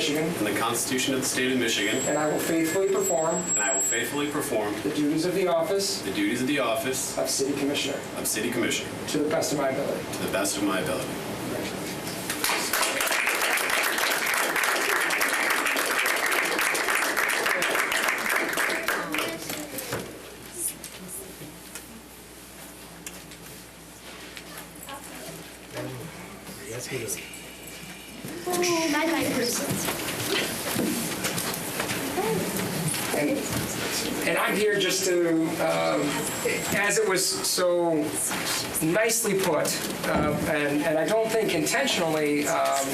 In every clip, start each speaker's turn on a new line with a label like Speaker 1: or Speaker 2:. Speaker 1: Michigan,
Speaker 2: and the Constitution of the State of Michigan,
Speaker 1: and I will faithfully perform
Speaker 2: and I will faithfully perform
Speaker 1: the duties of the office
Speaker 2: the duties of the office
Speaker 1: of City Commissioner
Speaker 2: of City Commissioner
Speaker 1: to the best of my ability.
Speaker 2: to the best of my ability.
Speaker 3: Oh, my life is.
Speaker 1: And and I'm here just to, um, as it was so nicely put, um, and and I don't think intentionally um,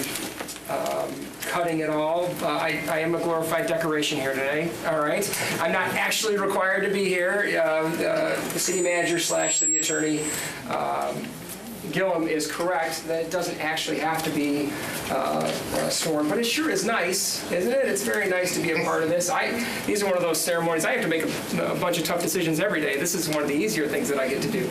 Speaker 1: um, cutting it all, uh, I I am a glorified decoration here today, all right? I'm not actually required to be here. Um, uh, The city manager slash city attorney um, Gillum is correct, that it doesn't actually have to be uh, uh, sworn, but it sure is nice, isn't it? It's very nice to be a part of this. I, these are one of those ceremonies, I have to make a a bunch of tough decisions every day. This is one of the easier things that I get to do.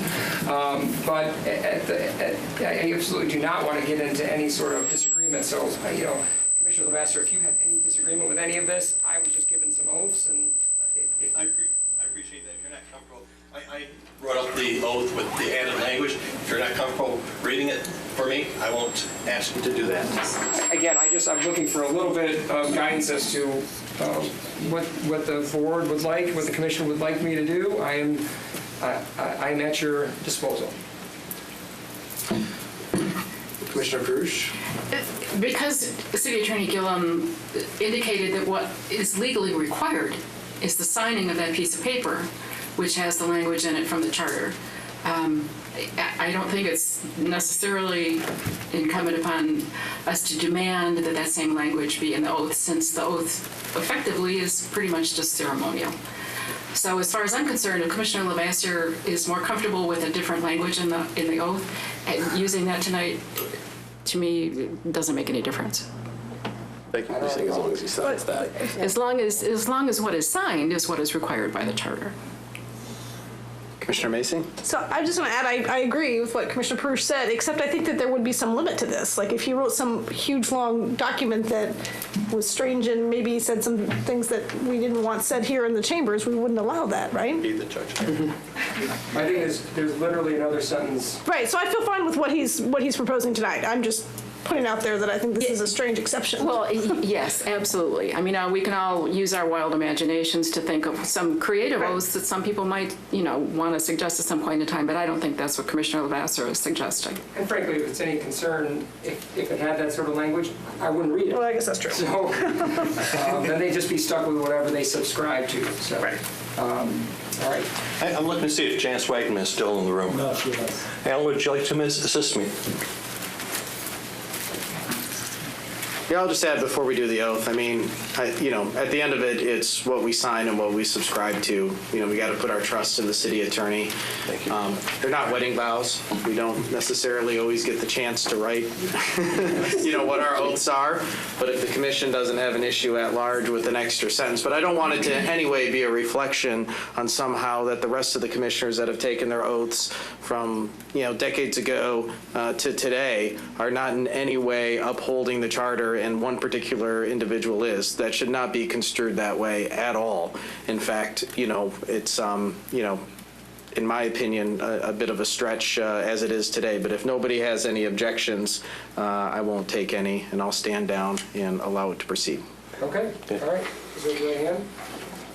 Speaker 1: Um, But at the- at- I absolutely do not want to get into any sort of disagreement, so, uh, you know, Commissioner Lemaster, if you have any disagreement with any of this, I was just given some oaths, and it- it-
Speaker 4: I appre- I appreciate that, if you're not comfortable, I, I brought up the oath with the added language, if you're not comfortable reading it for me, I won't ask you to do that.
Speaker 1: again, I just, I'm looking for a little bit of guidance as to uh, what, what the board would like, what the commission would like me to do. I am, I- I am at your disposal.
Speaker 5: Commissioner Perush?
Speaker 6: Because City Attorney Gillum indicated that what is legally required is the signing of that piece of paper, which has the language in it from the charter. Um, I I don't think it's necessarily incumbent upon us to demand that that same language be in the oath, since the oath effectively is pretty much just ceremonial. So as far as I'm concerned, if Commissioner Levasseur is more comfortable with a different language in the, in the oath, and using that tonight, to me, it doesn't make any difference.
Speaker 5: Thank you for saying as long as he signs that.
Speaker 6: As long as, as long as what is signed is what is required by the charter.
Speaker 5: Commissioner Macy?
Speaker 7: So I just want to add, I, I agree with what Commissioner Perush said, except I think that there would be some limit to this. Like if he wrote some huge, long document that was strange and maybe said some things that we didn't want said here in the chambers, we wouldn't allow that, right?
Speaker 4: Be the judge.
Speaker 1: I think there's, there's literally another sentence.
Speaker 7: Right, so I feel fine with what he's, what he's proposing tonight. I'm just putting out there that I think this is a strange exception.
Speaker 6: Well, y- yes, absolutely. I mean, uh, we can all use our wild imaginations to think of some creative oaths that some people might, you know, want to suggest at some point in time, but I don't think that's what Commissioner Levasseur is suggesting.
Speaker 1: And frankly, if it's any concern, if, if it had that sort of language, I wouldn't read
Speaker 7: Well, I
Speaker 1: it.
Speaker 7: guess that's true.
Speaker 1: So um, then they'd just be stuck with whatever they subscribe to, so. Right. All right.
Speaker 4: I- I'm looking to see if Janice Wagner is still in the room. No, she is. Alan, would you like to miss- assist me?
Speaker 8: Yeah, I'll just add before we do the oath, I mean, I, you know, at the end of it, it's what we sign and what we subscribe to. You know, we got to put our trust in the city attorney. Thank you. Um, they're not wedding vows. We don't necessarily always get the chance to write, you know, what our oaths are. But if the commission doesn't have an issue at large with an extra sentence, but I don't want it to in any way be a reflection on somehow that the rest of the commissioners that have taken their oaths from, you know, decades ago uh, to today are not in any way upholding the charter and one particular individual is. That should not be construed that way at all. In fact, you know, it's, um, you know, in my opinion, a, a bit of a stretch uh, as it is today. But if nobody has any objections, uh, I won't take any and I'll stand down and allow it to proceed.
Speaker 1: Okay, all right. Is it your hand?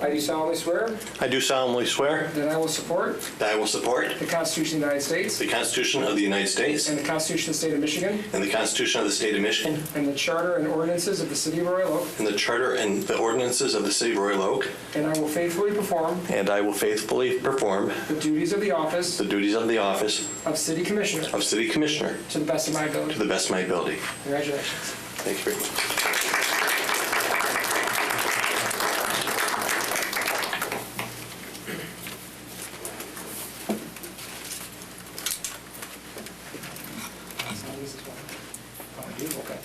Speaker 1: I do solemnly swear
Speaker 4: I do solemnly swear
Speaker 1: that I will support
Speaker 4: that I will support
Speaker 1: the Constitution of the United States
Speaker 4: the Constitution of the United States
Speaker 1: and the Constitution of the State of Michigan
Speaker 4: and the Constitution of the State of Michigan
Speaker 1: And the charter and ordinances of the city of Royal Oak.
Speaker 4: and the Charter and the ordinances of the City of Royal Oak,
Speaker 1: And I will faithfully perform
Speaker 4: and I will faithfully perform
Speaker 1: the duties of the office
Speaker 4: the duties of the office
Speaker 1: of city commissioner
Speaker 4: of City Commissioner
Speaker 1: to the best of my
Speaker 4: to
Speaker 1: ability.
Speaker 4: the best of my ability.
Speaker 1: Congratulations.
Speaker 4: Thank you very much.
Speaker 1: Oh, I do? Okay.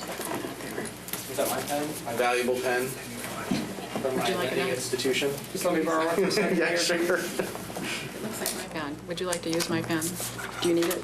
Speaker 8: Is that my pen? My valuable pen from my
Speaker 6: Would you like
Speaker 8: lending
Speaker 6: another?
Speaker 8: institution?
Speaker 1: Just let me borrow it for a second.
Speaker 8: Yeah, sure.
Speaker 6: Looks like my pen. Would you like to use my pen? Do you need it?